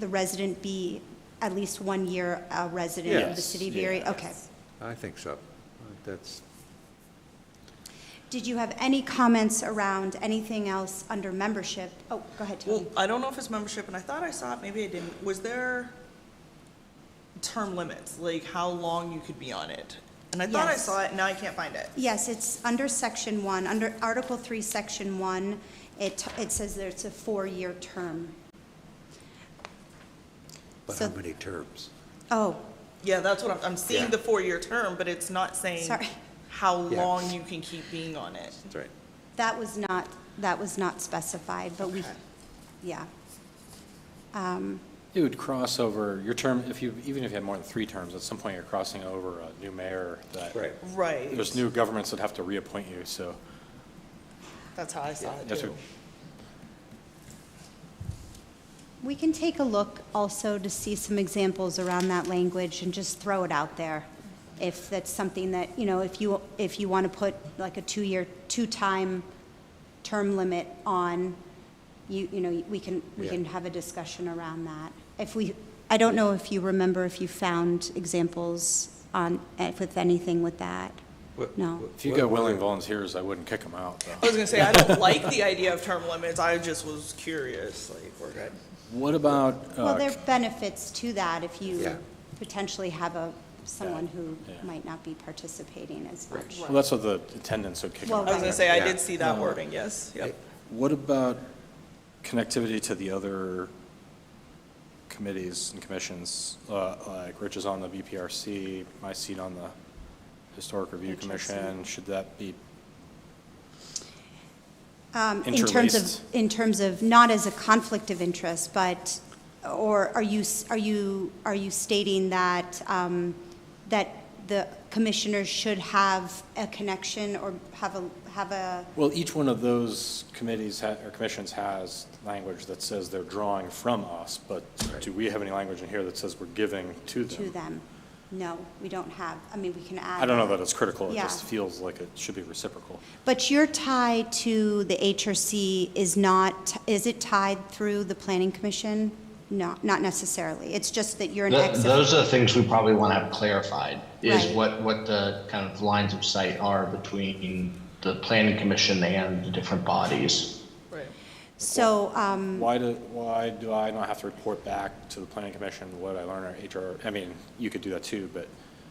the resident be at least one year a resident of the Yes, city of Erie? Okay. I think so. That's, Did you have any comments around anything else under membership? Oh, go ahead, Well, Tony. I don't know if it's membership, and I thought I saw it, maybe I didn't. Was there term limits, like how long you could be on it? And I thought I Yes. saw it, and now I can't find it. Yes, it's under section one, under Article Three, Section One. It, it says that it's a four-year term. but So- how many terms? Oh, Yeah, that's what I'm, I'm Yeah. seeing the four-year term, but it's not saying Sorry. how Yeah. long you can keep being on it. That's right. that was not, that was not specified, but we, Okay. yeah. It would cross over, your term, if you, even if you had more than three terms, at some point you're crossing over a new mayor that. Right. Right. There's new governments that have to reappoint you, so. That's how I saw it that's too. what- We can take a look also to see some examples around that language and just throw it out there. If that's something that, you know, if you, if you want to put like a two-year, two-time term limit on, you, you know, we can, we Yeah. can have a discussion around that. If we, I don't know if you remember if you found examples on, eh, with anything with that. What- No. what- If you got willing volunteers, I wouldn't kick them out, though. I was gonna say, I don't like the idea of term limits, I just was curious, like, we're good. What about, Well, uh, there are benefits to that if Yeah. you potentially have a, someone who Yeah. might not be participating as much. well, that's what the attendants would kick Well, them I was out. gonna say, I Yeah. did see that wording, yes, yep. What about connectivity to the other committees and commissions? Uh, Like Rich is on the BPRC, my seat on the Historic Review HRC. Commission, should that be Um, In terms Interlaced. of, in terms of, not as a conflict of interest, but, or are you, s- are you, are you stating that, um, that the commissioners should have a connection or have a, have a, Well, each one of those committees ha- or commissions has language that says they're drawing from us, but do we have any language in here that says we're giving to to them? them? No, we don't have, I mean, we can add. I don't know that it's critical, it Yeah. just feels like it should be reciprocal. But your tie to the HRC is not, is it tied through the planning commission? No, not necessarily. It's just that you're an Th- ex. Those are the things we probably want to have clarified, is Right. what, what the kind of lines of sight are between the planning commission and the different bodies. Right. So, um, Why do, why do I not have to report back to the planning commission what I learned at HR? I mean, you could do that too, but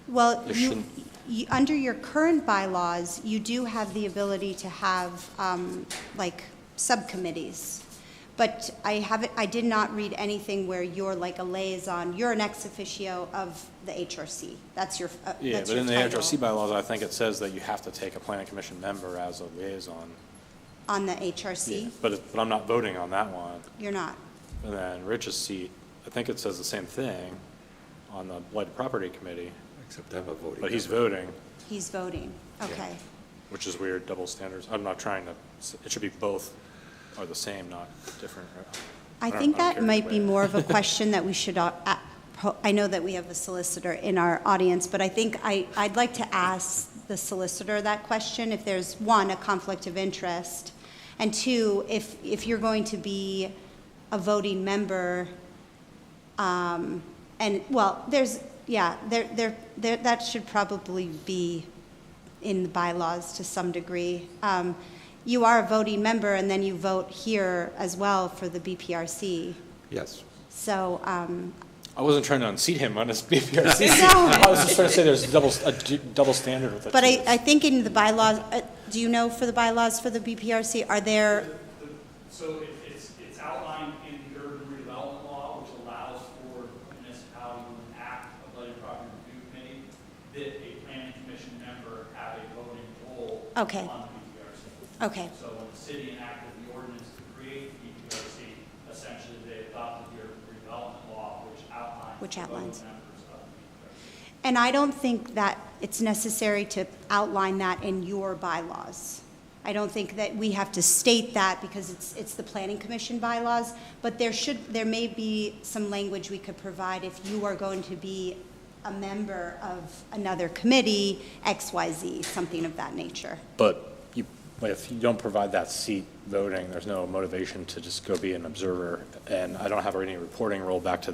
Well, There you, shouldn't- you, under your current bylaws, you do have the ability to have, um, like, subcommittees. But I haven't, I did not read anything where you're like a liaison, you're an ex officio of the HRC. That's your, uh, that's your yeah, but in the title HRC bylaws, I think it says that you have to take a planning commission member as a liaison. On the HRC, But, it- but I'm not voting on that one. you're not. And then Rich's seat, I think it says the same thing on the blighted property committee, Except I'm a voting. but he's member. voting, He's voting. Okay. which is weird, double standards. I'm not trying to, it should be both are the same, not different. right? I don't- think don't that care might either be way. more of a question that we should, uh, uh, pro- I know that we have a solicitor in our audience, but I think I, I'd like to ask the solicitor that question, if there's, one, a conflict of interest, and two, if, if you're going to be a voting member, um, and, well, there's, yeah, there, there, there, that should probably be in the bylaws to some degree. Um, You are a voting member, and then you vote here as well for the BPRC. Yes. So, um, I wasn't trying to unseat him on his BPRC. No. I was just trying to say there's double, a d- double standard with it. but I, too. I think in the bylaws, uh, do you know for the bylaws for the BPRC, are there, The- So it- it's, it's outlined in the urban redevelopment law, which allows for a municipality to act a budget property review committee, that a planning commission member have a voting role Okay. on the BPRC. okay, So when the city enacted the ordinance to create the BPRC, essentially they adopted the urban redevelopment law, which outlines Which the voting outlines. members of the BPRC. and I don't think that it's necessary to outline that in your bylaws. I don't think that we have to state that because it's, it's the planning commission bylaws, but there should, there may be some language we could provide if you are going to be a member of another committee, X, Y, Z, something of that nature. But you But if you don't provide that seat voting, there's no motivation to just go be an observer. And I don't have any reporting role back to